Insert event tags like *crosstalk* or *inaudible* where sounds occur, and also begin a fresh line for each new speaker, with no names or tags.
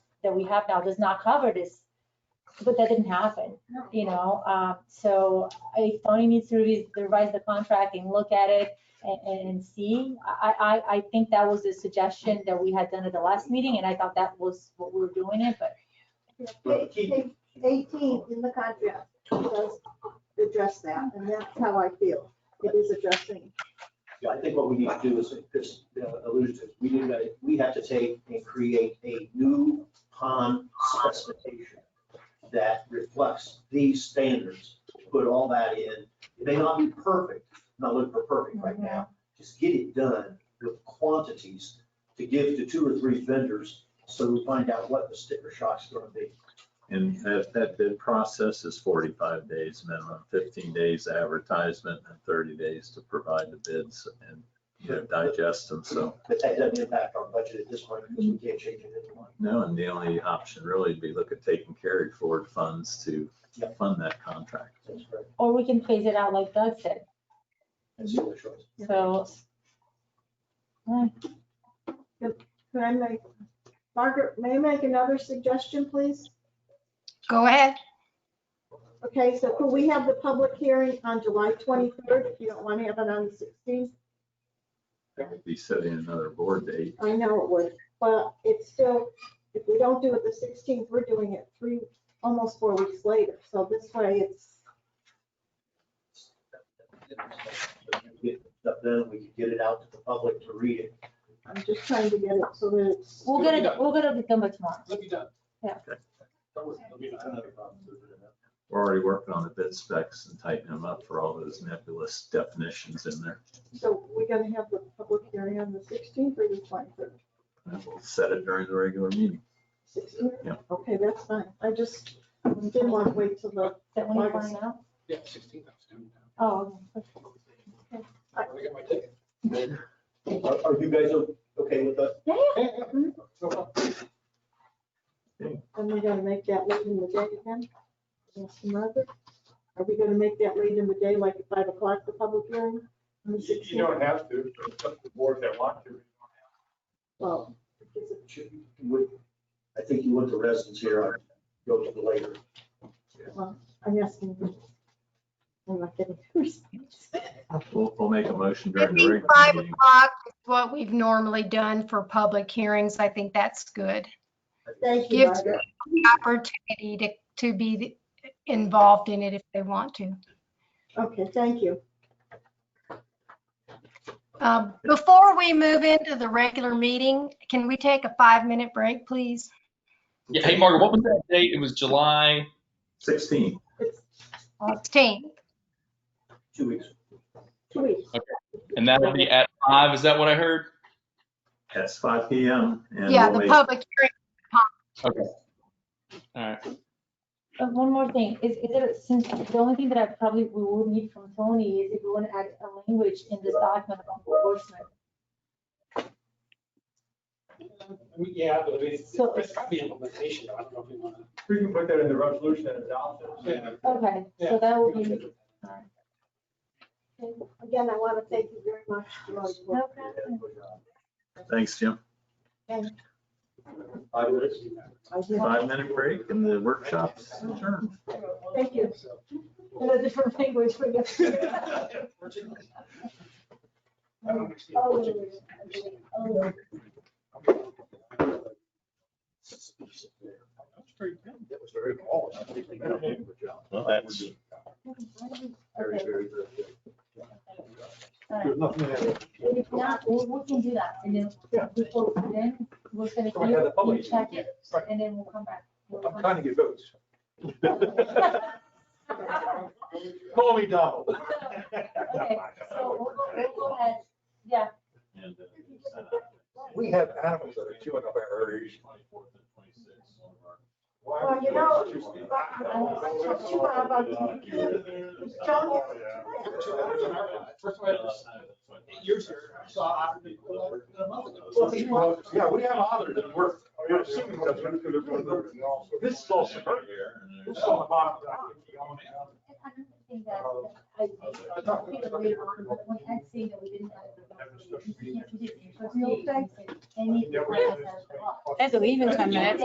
that we have now does not cover this, but that didn't happen, you know? Um, so if Tony needs to revise, revise the contract and look at it and, and- and see, I, I, I think that was a suggestion that we had done at the last meeting, and I thought that was what we were doing it, but
Page page 18 in the contract does address that, and that's how I feel. It is addressing.
Yeah, I think what we need to do is, because alluded to, we need to, we have to take and create a new pond specification that reflects these standards, put all that in. It may not be perfect, not looking for perfect right now, just get it done with quantities to give to two or three vendors so we find out what the sticker shock's gonna be.
And that, that bid process is forty-five days minimum, fifteen days advertisement and thirty days to provide the bids and, you know, digest them. So,
But that doesn't impact our budget at this point because we can't change it anymore.
no, and the only option really would be look at taking carry forward funds to
Yep.
fund that contract.
That's correct.
or we can phase it out like Doug said,
That's the other choice.
so.
Can I make, Margaret, may I make another suggestion, please?
Go ahead.
Okay, so could we have the public hearing on July 23rd if you don't want to have it on the 16th?
That would be setting another board date.
I know it would, but it's still, if we don't do it the 16th, we're doing it three, almost four weeks later. So this way it's,
Stuff Then we could get it out to the public to read it.
I'm just trying to get it so that it's,
We'll get it, we'll get it done by tomorrow.
It'll be done.
That was- I mean, I don't have a problem with it.
We're already working on the bid specs and tightening them up for all those nebulous definitions in there.
so we're going to have the public hearing on the 16th or the 23rd?
And we'll set it during the regular meeting.
Sixteen?
Yeah.
Okay, that's fine. I just didn't want to wait till the,
That when you find out?
Yeah, sixteen thousand.
Oh, okay.
I got my ticket.
Are, are you guys o- okay with that?
yeah, yeah.
Yeah, yeah, no problem.
and we're gonna make that late in the day again? Yes, Margaret? Are we gonna make that late in the day, like at five o'clock, the public hearing? on the
You- You
16th?
don't have to, it's up to the board if they want to.
Well,
Should- would- I think you want the residents here, I'd go to the later.
I'm asking. I'm not getting a response.
We'll, we'll make a motion during
It'd
the
be
regular
five
meeting.
o'clock is what we've normally done for public hearings. I think that's good.
Thank you,
Give-
Margaret.
Opportunity to, to be involved in it if they want to.
Okay, thank you.
Um, Before we move into the regular meeting, can we take a five-minute break, please?
Yeah, hey, Margaret, what was that date? It was July.
Sixteen.
It's
16.
Two weeks.
two weeks.
And that'll be at five, is that what I heard?
That's five P M. and
Yeah,
we'll
the
make-
public hearing.
Okay. All right.
Uh, One more thing, is, is it, since the only thing that I probably, we would need from Tony is if we want to add a language in this document about enforcement.
We- Yeah, but it's,
So-
it's got to be implementation. I don't know if we want to.
We can put that in the resolution and adopt it.
Okay, so that would be,
Again, I want to thank you very much for all your work.
Thanks, Jim.
Five minutes.
I did.
Five minute break and the workshop's adjourned.
Thank you.
in a different language for you.
*laughs*
I don't understand.
Oh, oh.
That's very good.
That was very cool. I think they did a good job.
Well, that's-
Very,
Okay,
very good.
all right. If not, we, we can do that, and then, before, then, we're gonna,
Go ahead, the
you,
public.
you check it,
Right.
and then we'll come back. We'll
I'm
come
trying to get votes.
*laughs* back.
Call me Donald.
Okay, so we'll go, we'll go ahead, yeah,
and, uh,
We have animals that are chewing up our areas.
Well, you know, I'm too bad about you. Don't you?
First of all, I just- eight years here, I saw Otter a month ago.
Yeah, we have others that work. We're assuming that's what it's gonna do. This is all suburban. This is all the bottom.
I don't think that, I, I think that later on, but when I see that we didn't have. the document, we can't do it, because we didn't include Any.
Yeah, we-
That's a leave in ten minutes.